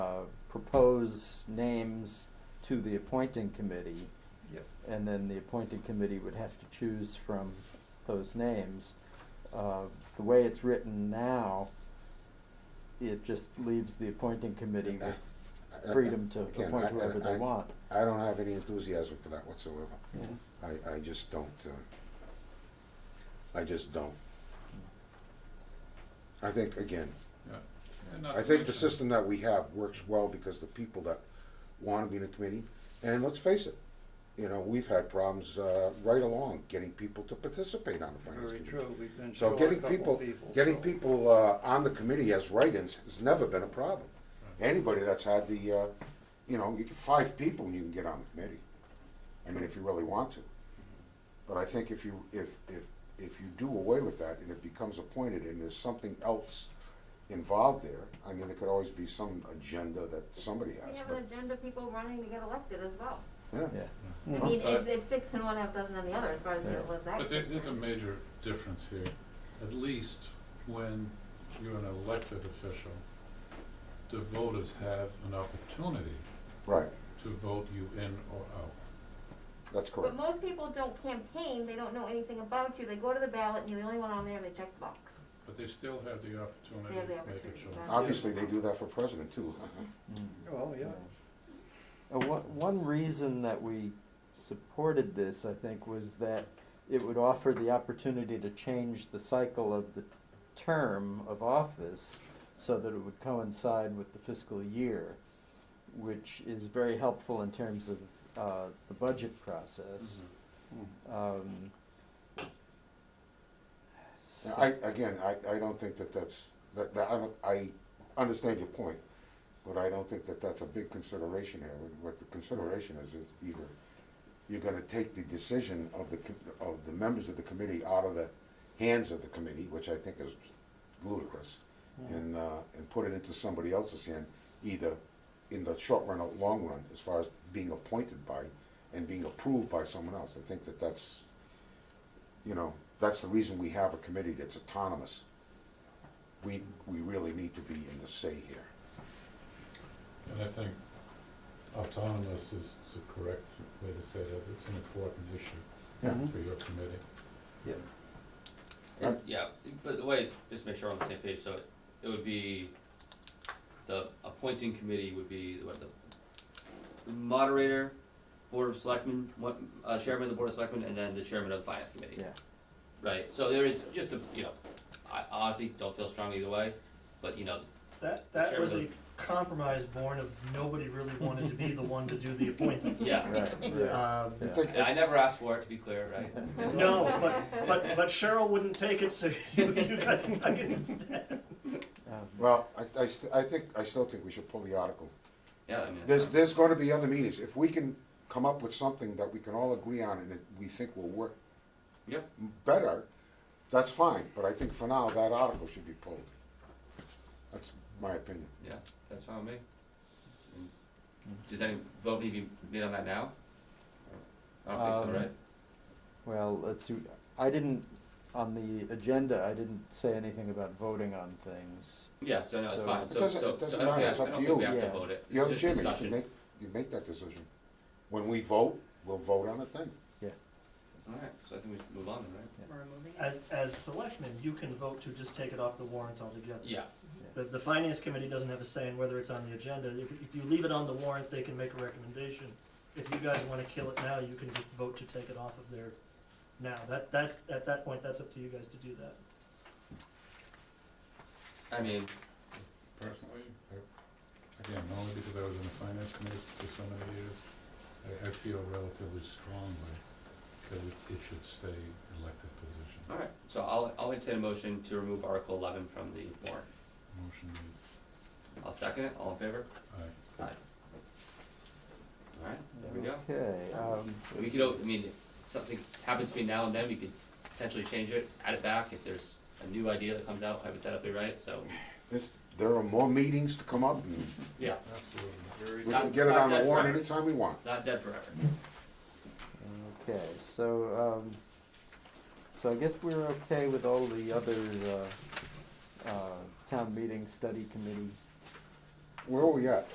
uh, propose names to the appointing committee. Yep. And then the appointing committee would have to choose from those names. Uh, the way it's written now, it just leaves the appointing committee with I- I- freedom to again, appoint I- I- whoever I- they want. I don't have any enthusiasm for that whatsoever. Yeah. I, I just don't, uh, I just don't. I think, again, And not I to think the mention- system that we have works well because the people that want to be in a committee, and let's face it, you know, we've had problems, uh, right along getting people to participate on the finance Very committee. true, we've been So short a getting couple people, people. getting so- people, uh, on the committee as write-ins has never been a problem. Anybody that's had the, uh, you know, you get five people and you can get on the committee. I mean, if you really want to. But I think if you, if, if, if you do away with that and it becomes appointed and there's something else involved there, I mean, there could always be some agenda that somebody We has, have an but, agenda of people running to get elected as well. yeah. Yeah. I mean, Uh, it's, it's six and one half dozen of the other as far as Yeah. people as that. But there, goes. there's a major difference here, at least when you're an elected official, the voters have an opportunity Right, to vote you in or out. that's But correct. most people don't campaign, they don't know anything about you, they go to the ballot and you're the only one on there and they check the box. But they still have the opportunity They have the to make a opportunity, choice. right. Obviously, they do that for president too. Mm. Oh, Well, yeah, Uh, one, one reason that we supported this, I think, was that it would offer the opportunity to change the cycle of the term of office so that it would coincide with the fiscal year, which is very helpful in terms of, uh, the budget process. Um, Now, so- I, again, I, I don't think that that's, that, that, I, don't- I understand your point, but I don't think that that's a big consideration here. What- What the consideration is, is either you're gonna take the decision of the, co- of the members of the committee out of the hands of the committee, which I think is ludicrous, and, uh, and put it into somebody else's hand, either in the short run or long run, as far as being appointed by and being approved by someone else. I think that that's, you know, that's the reason we have a committee that's autonomous. We, we really need to be in the say here. And I think autonomous is the correct way to say that, it's an important issue Yeah. for your committee. yeah. Uh, Right. Yeah, but the way, just to make sure we're on the same page, so it- it would be, the appointing committee would be, what, the the moderator, board of selectmen, what, uh, chairman of the board of selectmen, and then the chairman of the finance committee. Yeah. Right, so there is just a, you know, I honestly don't feel strongly either way, but you know, That, that was a Chairman. compromise born of nobody really wanted to be the one to do the appointing. yeah, Right, right, yeah. Um, I think- I never asked for it, to be clear, right? No, but, but, but Cheryl wouldn't take it, so you, you got stuck in instead. Um, Well, I, I, st- I think, I still think we should pull the article. Yeah, I mean. it's There's, not- there's gonna be other meetings. If we can come up with something that we can all agree on and that we think will work Yeah, better, that's fine, but I think for now, that article should be pulled. That's my opinion. yeah, that's fine with me. Does any vote need to be made on that now? I don't think Um, so, right? Well, let's see, I didn't, on the agenda, I didn't say anything about voting on things. Yeah, so no, it's So- fine, It so, doesn't- so, it so doesn't I don't matter, think, it's I up don't to think we you. have to Yeah. vote it, You're it's the just chairman, discussion. you should make, you make that decision. When we vote, we'll vote on it then. Alright, so I think we should move on, then, right? As, as selectmen, you can vote to just take it off the warrant altogether. Yeah, The, the finance committee doesn't have a say in whether it's on the agenda. If, if you leave it on the warrant, they can make a recommendation. If you guys wanna kill it now, you can just vote to take it off of there now. That, that's, at that point, that's up to you guys to do that. I mean, Personally, I, again, only because I was in the finance committee for so many years, I, I feel relatively strongly that it, it should stay elected position. alright, so I'll, I'll entertain a motion to remove Article eleven from the warrant. Motion made, I'll second it, all in favor? aye. Alright, there we go. Okay, um, We could, o- I mean, if something happens between now and then, we could potentially change it, add it back, if there's a new idea that comes out hypothetically, right, so, There's, there are more meetings to come up, and yeah, Absolutely. we It's not- can it's get it not on the dead warrant forever. anytime we want. it's not dead forever. okay, so, um, so I guess we're okay with all the other, uh, uh, town meeting study committee. Where are we at?